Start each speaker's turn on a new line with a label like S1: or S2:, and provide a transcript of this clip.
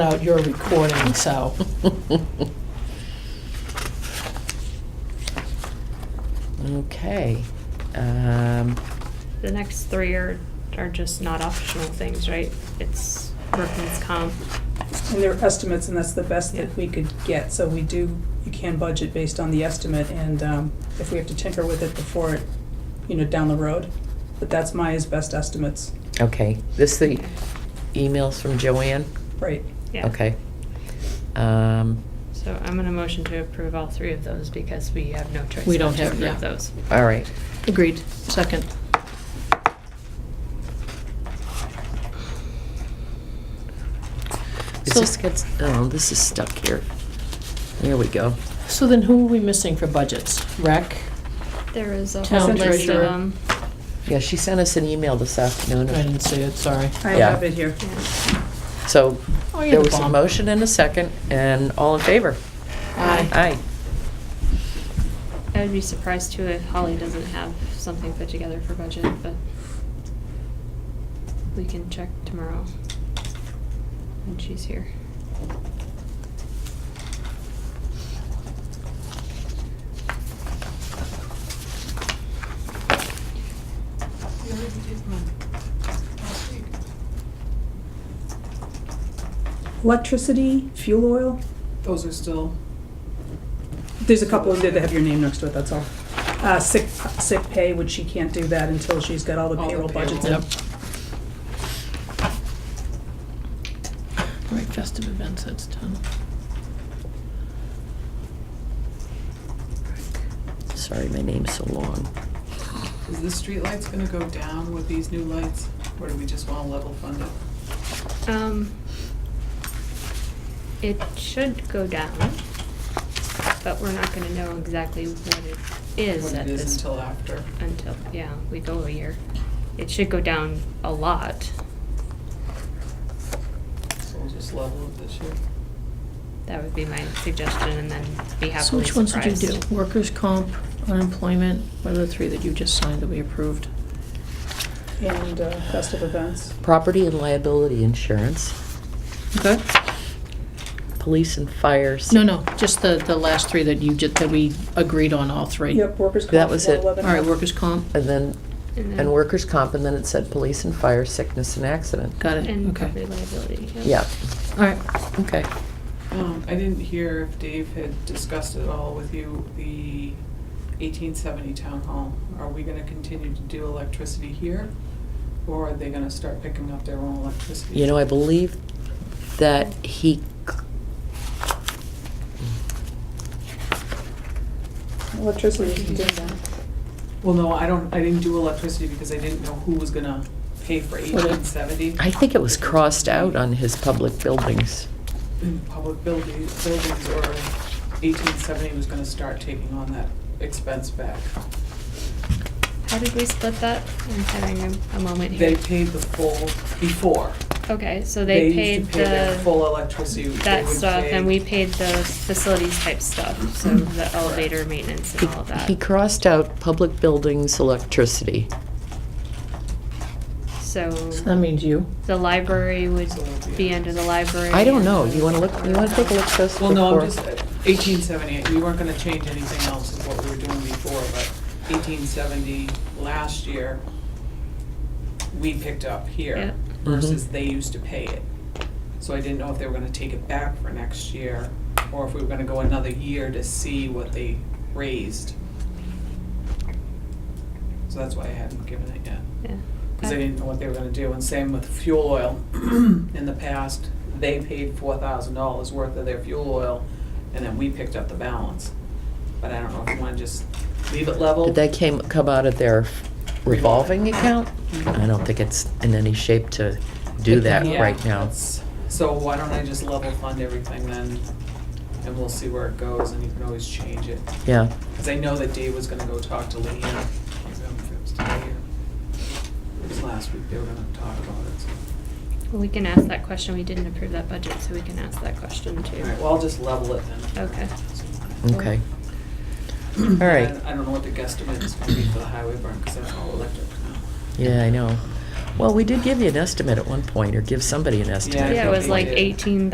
S1: out your recording, so.
S2: Okay. Um,
S3: The next three are, are just not optional things, right? It's workman's comp.
S4: And they're estimates, and that's the best
S3: Yeah.
S4: that we could get, so we do, you can budget based on the estimate, and um, if we have to tinker with it before, it, you know, down the road, but that's Maya's best estimates,
S2: Okay, this the emails from Joanne?
S4: right?
S3: Yeah.
S2: Okay. Um,
S3: So I'm gonna motion to approve all three of those because we have no choice
S1: We don't
S3: but to
S1: have- yeah.
S3: approve those.
S2: all right.
S1: Agreed. Second.
S2: Is
S1: So-
S2: this gets, oh, this is stuck here. There we go.
S1: So then who are we missing for budgets? Rec?
S3: There is a
S1: Town
S3: whole list of
S1: treasurer.
S3: them.
S2: Yeah, she sent us an email this
S1: I
S2: afternoon.
S1: didn't see it, sorry.
S4: I
S2: Yeah.
S4: have it here.
S3: Yeah.
S2: So
S1: Oh,
S2: there
S1: you're the
S2: was a
S1: bomb.
S2: motion and a second, and all in favor?
S1: Aye.
S2: Aye.
S3: I'd be surprised too if Holly doesn't have something put together for budget, but we can check tomorrow when she's here.
S5: You already did one last week.
S4: Electricity, fuel oil,
S5: Those are still,
S4: there's a couple in there that have your name next to it, that's all. Uh, Sick, sick pay, which she can't do that until she's got all the
S5: All the
S4: payroll budgets
S5: payroll.
S4: in.
S1: Yep. Right, festive events, that's done.
S2: Sorry, my name's so long.
S5: is the streetlights gonna go down with these new lights, or do we just wanna level fund it?
S3: Um, it should go down, but we're not gonna know exactly what it is
S5: What
S3: at
S5: it is
S3: this
S5: until after?
S3: until, yeah, we go a year. It should go down a lot.
S5: So we'll just level it this year.
S3: That would be my suggestion, and then be
S1: So
S3: happily
S1: which ones did
S3: surprised.
S1: you do? Workers' comp, unemployment, what are the three that you just signed that we approved?
S4: And uh, festive events.
S2: Property and liability insurance,
S1: Okay.
S2: police and fires.
S1: No, no, just the, the last three that you just, that we agreed on all three.
S4: Yep, workers' comp.
S2: That was it.
S4: 111.
S1: All right, workers' comp,
S2: And then,
S3: And then-
S2: and workers' comp, and then it said police and fire, sickness and accident.
S1: got it,
S3: And property
S1: okay.
S3: liability.
S2: Yeah,
S1: All right,
S2: okay.
S5: Um, I didn't hear if Dave had discussed at all with you the eighteen seventy town hall. Are we gonna continue to do electricity here, or are they gonna start picking up their own electricity?
S2: You know, I believe that he,
S4: Electricity, you did that.
S5: Well, no, I don't, I didn't do electricity because I didn't know who was gonna pay for eighteen seventy.
S2: I think it was crossed out on his public buildings.
S5: in public buildings, buildings, or eighteen seventy was gonna start taking on that expense back.
S3: How did we split that? I'm having a- a moment
S5: They
S3: here.
S5: paid the full before.
S3: Okay, so they paid
S5: used to pay their
S3: the,
S5: full electricity. They
S3: that
S5: would
S3: stuff,
S5: pay-
S3: and we paid the facilities type stuff, so the elevator maintenance and all of that.
S2: He crossed out public buildings electricity.
S1: so that
S3: So
S1: means you.
S3: the library would
S5: So it'll be-
S3: be under the library.
S2: I don't
S3: and
S2: know,
S3: the-
S2: you wanna look, you wanna take a look at those
S5: Well, no, I'm
S2: before?
S5: just, eighteen seventy, we weren't gonna change anything else of what we were doing before, but eighteen seventy last year, we picked up
S3: Yeah.
S5: here
S2: Mhm.
S5: versus they used to pay it. So I didn't know if they were gonna take it back for next year, or if we were gonna go another year to see what they raised. So that's why I hadn't given it yet.
S3: Yeah.
S5: Because I didn't know what they were gonna do, and same with fuel oil. In the past, they paid four thousand dollars worth of their fuel oil, and then we picked up the balance. But I don't know if you wanna just leave it level.
S2: Did that came, come out of their revolving account? I don't think it's in any shape to do that
S5: Yeah,
S2: right now.
S5: that's- So why don't I just level fund everything then, and we'll see where it goes, and you can always change it.
S2: Yeah,
S5: Because I know that Dave was gonna go talk to Leanne, I don't know if it was today or, it was last week, they were gonna talk about it, so.
S3: We can ask that question, we didn't approve that budget, so we can ask that question too.
S5: All right, well, I'll just level it then.
S3: Okay.
S2: okay. All right,
S5: I don't know what the guesstimate is gonna be for the highway burn, because that's all electric now.
S2: yeah, I know. Well, we did give you an estimate at one point, or give somebody an estimate.
S5: I
S3: Yeah, it
S5: think
S3: was
S5: they
S3: like
S5: did.
S3: eighteen